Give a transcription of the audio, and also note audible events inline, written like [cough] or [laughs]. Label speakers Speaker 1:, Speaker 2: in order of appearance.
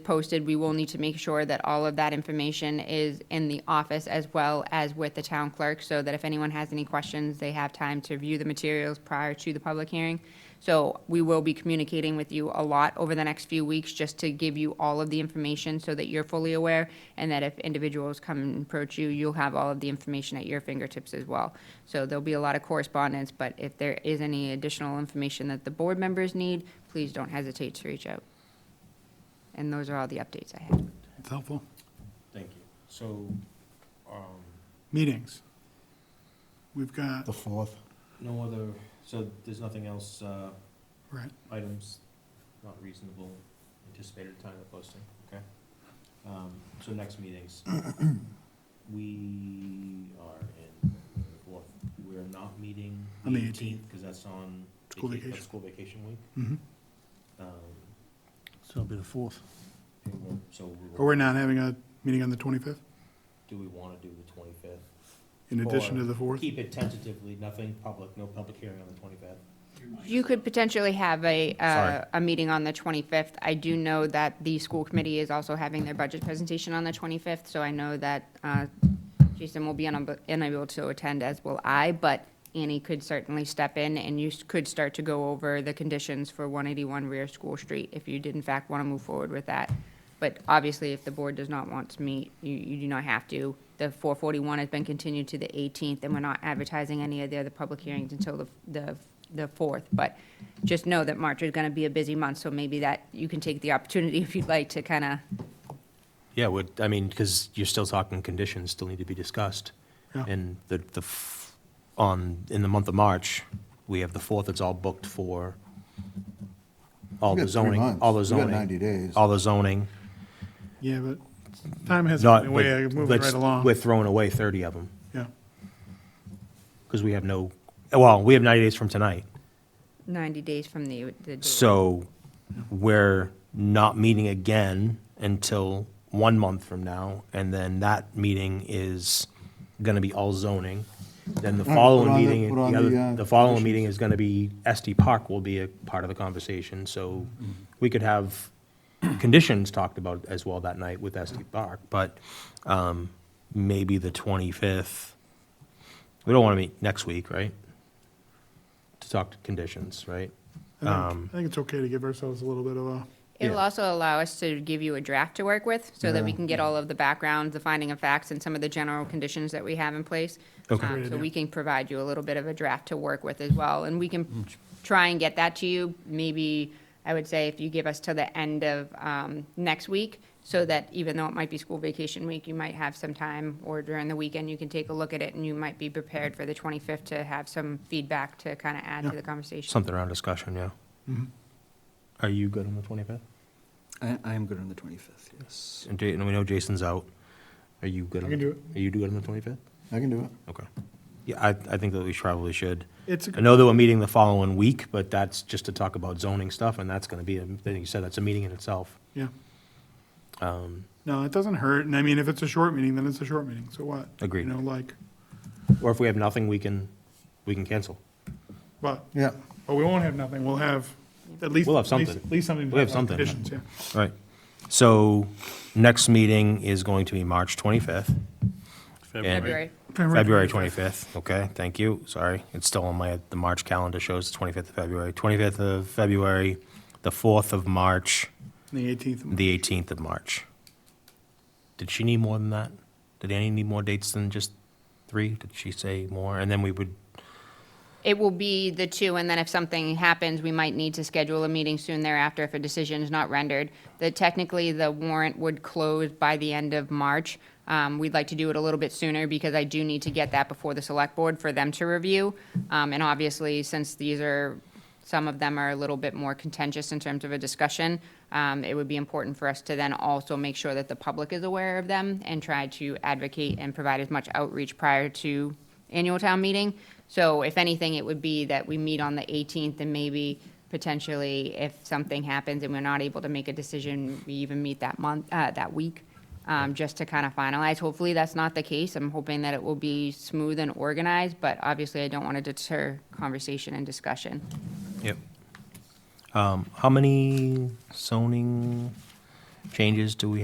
Speaker 1: posted, we will need to make sure that all of that information is in the office as well as with the town clerk, so that if anyone has any questions, they have time to view the materials prior to the public hearing. So we will be communicating with you a lot over the next few weeks, just to give you all of the information so that you're fully aware, and that if individuals come and approach you, you'll have all of the information at your fingertips as well. So there'll be a lot of correspondence, but if there is any additional information that the board members need, please don't hesitate to reach out. And those are all the updates I had.
Speaker 2: It's helpful.
Speaker 3: Thank you. So, um,
Speaker 2: Meetings. We've got,
Speaker 4: The fourth.
Speaker 3: no other, so there's nothing else, uh,
Speaker 2: right,
Speaker 3: items not reasonable anticipated time of posting, okay? Um, so next
Speaker 2: [clears throat]
Speaker 3: meetings, we are in, fourth. we're not meeting
Speaker 2: On
Speaker 3: the
Speaker 2: the
Speaker 3: eighteenth, because that's on
Speaker 2: School
Speaker 3: vaca- that's
Speaker 2: vacation.
Speaker 3: School vacation week.
Speaker 5: mm-hmm.
Speaker 2: mhm.
Speaker 3: Um,
Speaker 4: So it'll be the fourth.
Speaker 3: and we'll- so we will.
Speaker 2: Or we're not having a meeting on the 25th
Speaker 3: Do we wanna do the twenty-fifth?
Speaker 2: in addition to the 4th?
Speaker 3: Keep it tentatively, nothing public, no public hearing on the twenty-fifth.
Speaker 1: You could potentially have a, uh,
Speaker 4: Sorry.
Speaker 1: a meeting on the 25th. I do know that the school committee is also having their budget presentation on the 25th, so I know that uh, Jason will be unab- unable to attend, as will I, but Annie could certainly step in, and you s- could start to go over the conditions for 181 rear School Street if you did in fact want to move forward with that. But obviously, if the board does not want to meet, you, you do not have to. The 441 has been continued to the 18th, and we're not advertising any of the other public hearings until the, the, the 4th. But just know that March is going to be a busy month, so maybe that, you can take the opportunity [laughs] if you'd like to kind of,
Speaker 5: Yeah, would, I mean, because you're still talking conditions still need to be discussed.
Speaker 2: Yeah.
Speaker 5: And the, the, f- on, in the month of March, we have the fourth, it's all booked for all
Speaker 4: We
Speaker 5: the
Speaker 4: got three
Speaker 5: zoning,
Speaker 4: months.
Speaker 5: all the
Speaker 4: We got
Speaker 5: zoning.
Speaker 4: 90 days.
Speaker 5: All the zoning.
Speaker 2: Yeah, but time has
Speaker 5: Not,
Speaker 2: gotten away,
Speaker 5: but
Speaker 2: moving
Speaker 5: let's-
Speaker 2: right along.
Speaker 5: We're throwing away thirty of them,
Speaker 2: Yeah,
Speaker 5: because we have no, well, we have ninety days from tonight.
Speaker 1: 90 days from the, the date.
Speaker 5: So we're not meeting again until one month from now, and then that meeting is gonna be all zoning. Then the
Speaker 4: All right,
Speaker 5: following
Speaker 4: put on the-
Speaker 5: meeting,
Speaker 4: put on
Speaker 5: the other-
Speaker 4: the, uh,
Speaker 5: the following meeting is gonna be, SD Park will be a part of the conversation, so we could have conditions talked about as well that night with SD Park, but, um, maybe the twenty-fifth. We don't wanna meet next week, right? To talk to conditions, right?
Speaker 2: I
Speaker 5: Um,
Speaker 2: think, I think it's okay to give ourselves a little bit of a,
Speaker 1: It'll
Speaker 5: Yeah.
Speaker 1: also allow us to give you a draft to work with, so that we
Speaker 4: Yeah.
Speaker 1: can get all of the background, the finding of facts, and some of the general conditions that we have in place.
Speaker 5: Okay.
Speaker 1: Um,
Speaker 2: Great
Speaker 1: So
Speaker 2: idea.
Speaker 1: we can provide you a little bit of a draft to work with as well, and we
Speaker 5: Mm.
Speaker 1: can try and get that to you, maybe, I would say, if you give us till the end of um, next week, so that even though it might be school vacation week, you might have some time, or during the weekend, you can take a look at it, and you might be prepared for the 25th to have some feedback to kind of add to
Speaker 2: Yeah.
Speaker 1: the conversation.
Speaker 5: Something around discussion, yeah.
Speaker 2: Mm-hmm.
Speaker 5: Are you good on the 25th?
Speaker 6: I, I am good on the 25th, yes.
Speaker 5: And Ja- and we know Jason's out. Are you good?
Speaker 2: I
Speaker 5: on
Speaker 2: can
Speaker 5: the-
Speaker 2: do it.
Speaker 5: Are you good on the 25th?
Speaker 4: I can do it.
Speaker 5: Okay. Yeah, I, I think that we probably should.
Speaker 2: it's, a
Speaker 5: I know that we're meeting the following week, but that's just to talk about zoning stuff, and that's going to be, a- I think you said, that's a meeting in itself.
Speaker 2: yeah.
Speaker 5: Um,
Speaker 2: No, it doesn't hurt, and I mean, if it's a short meeting, then it's a short meeting, so what?
Speaker 5: Agreed.
Speaker 2: You know, like,
Speaker 5: Or if we have nothing, we can, we can cancel.
Speaker 2: but,
Speaker 4: Yeah.
Speaker 2: but we won't have nothing, we'll have at least.
Speaker 5: We'll have
Speaker 2: at least-
Speaker 5: something.
Speaker 2: At least something.
Speaker 5: We'll have
Speaker 2: about
Speaker 5: something.
Speaker 2: Conditions, yeah.
Speaker 5: Right. So next meeting is going to be March 25th. And-
Speaker 1: February.
Speaker 5: February 25th, okay, thank you, sorry. It's still on my, the March calendar shows the 25th of February. 25th of February, the 4th of March,
Speaker 2: The 18th.
Speaker 5: the 18th of March. Did she need more than that? Did Annie need more dates than just three? Did she say more? And then we would,
Speaker 1: It will be the two, and then if something happens, we might need to schedule a meeting soon thereafter if a decision is not rendered. The, technically, the warrant would close by the end of March. Um, we'd like to do it a little bit sooner because I do need to get that before the select board for them to review. Um, and obviously, since these are, some of them are a little bit more contentious in terms of a discussion, um, it would be important for us to then also make sure that the public is aware of them and try to advocate and provide as much outreach prior to annual town meeting. So if anything, it would be that we meet on the 18th and maybe potentially if something happens and we're not able to make a decision, we even meet that month, uh, that week, um, just to kind of finalize. Hopefully, that's not the case. I'm hoping that it will be smooth and organized, but obviously, I don't want to deter conversation and discussion.
Speaker 5: yep. Um, How many zoning changes do we